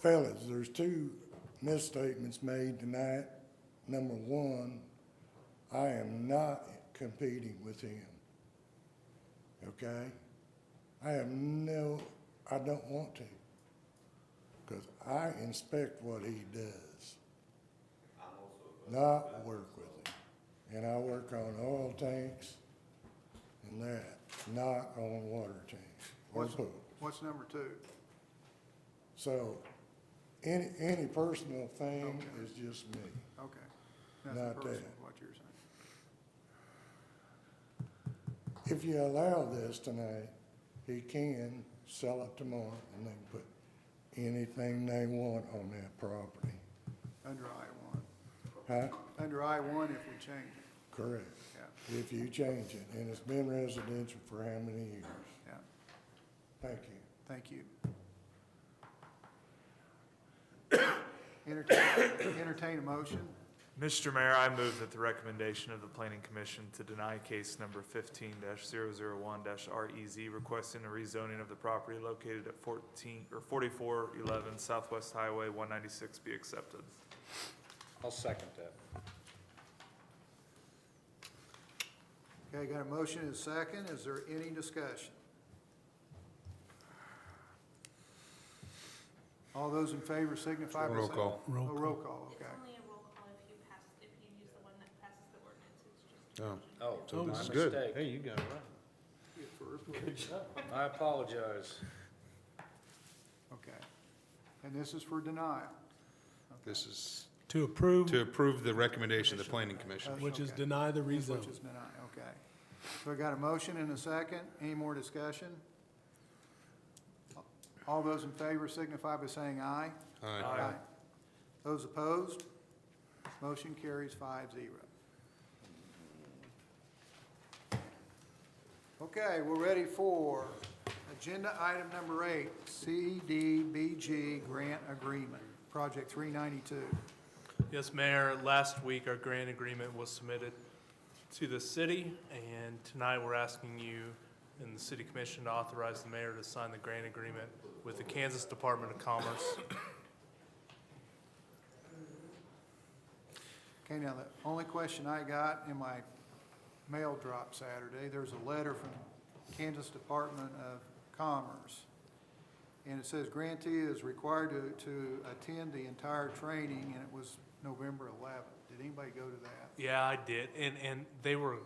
Fellas, uh, there's two misstatements made tonight. Number one, I am not competing with him. Okay? I have no, I don't want to. Because I inspect what he does. Not work with him. And I work on oil tanks and that, not on water tanks or What's, pools. what's number two? So, any, any personal thing is just me. Okay. Nothing Not personal, that. what you're saying. If you allow this tonight, he can sell it tomorrow and they can put anything they want on that property. Under I one. Huh? Under I one if we change it, Correct. yeah, If you change it, and it's been residential for how many years? yeah. Thank you. Thank you. Entertain, entertain a motion. Mr. Mayor, I move that the recommendation of the Planning Commission to deny case number fifteen one REZ requesting a rezoning of the property located at fourteen, or forty-four eleven Southwest Highway one ninety-six be accepted. I'll second that. Okay, got a motion and a second. Is there any discussion? All those in favor signify by saying. Roll call. Oh, roll call, It's okay. only a roll call if you pass, if you use the one that passes the ordinance, it's just. Oh. Oh, Oh, my this is good. mistake. Hey, you got it right. I apologize. Okay. And this is for denial. This is To approve, to approve the recommendation of the planning commission. which is Okay. deny the Is rezone. Which is denied, okay. So I got a motion and a second. Any more discussion? All those in favor signify by saying aye. Aye. Those opposed? Motion carries five zero. Okay, we're ready for agenda item number eight, CDBG grant agreement, project three ninety-two. Yes, Mayor, last week our grant agreement was submitted to the city, and tonight we're asking you and the city commission to authorize the mayor to sign the grant agreement with the Kansas Department of Commerce. Okay, now, the only question I got in my mail drop Saturday, there's a letter from Kansas Department of Commerce. And it says grantee is required to, to attend the entire training, and it was November eleventh. Did anybody go to that? Yeah, I did, and, and they were,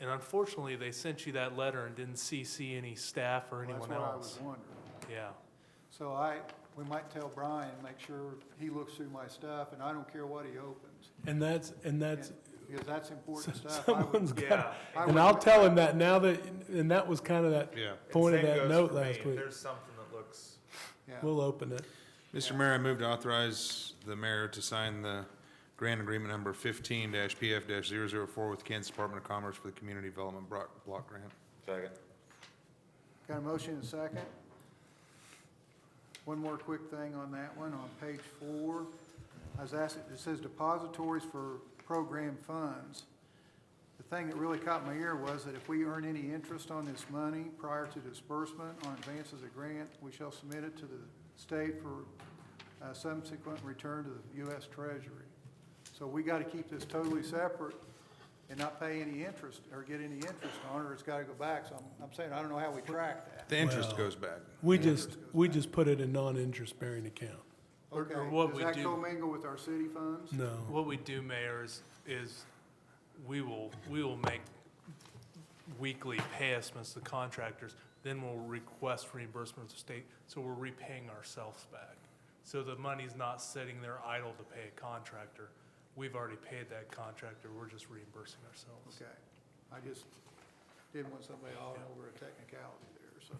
and unfortunately, they sent you that letter and didn't CC any staff or Well, anyone That's what I was else. wondering. Yeah, So I, we might tell Brian, make sure he looks through my stuff, and I don't care what he opens. And that's, and that's, Because that's important stuff. I would- someone's Yeah. got, I and would- I'll tell him that now that, and that was kind of that Yeah. point of Same that goes note for me. last If week. There's something that looks, Yeah. We'll open it. Mr. Mayor, I move to authorize the mayor to sign the grant agreement number fifteen PF 4 with Kansas Department of Commerce for the Community Development Block, Block Grant. Got a motion and a second? One more quick thing on that one, on page four. I was asked, it says depositories for program funds. The thing that really caught my ear was that if we earn any interest on this money prior to disbursement on advances of grant, we shall submit it to the state for uh, subsequent return to the U.S. Treasury. So we got to keep this totally separate and not pay any interest or get any interest on it, or it's got to go back. So I'm, I'm saying, I don't know how we track that. The interest Well- goes back. We just, we just put it in non-interest bearing account. Or- or Okay, what we Does that do- commingle with our city funds? No. what we do, Mayor, is, is we will, we will make weekly pay estimates to contractors, then we'll request reimbursement to state, so we're repaying ourselves back. So the money's not sitting there idle to pay a contractor. We've already paid that contractor, we're just reimbursing ourselves. Okay, I just didn't want somebody all over a technicality there, so.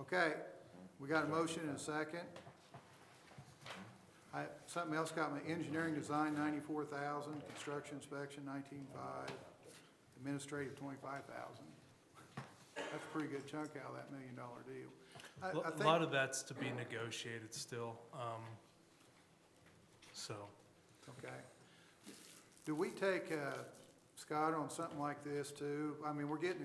Okay, we got a motion and a second. I, something else got me, engineering design ninety-four thousand, construction inspection nineteen-five, administrative twenty-five thousand. That's a pretty good chunk out of that million dollar deal. I- I A think- lot of that's to be negotiated still, um, so. Okay. Do we take, uh, Scott, on something like this too? I mean, we're getting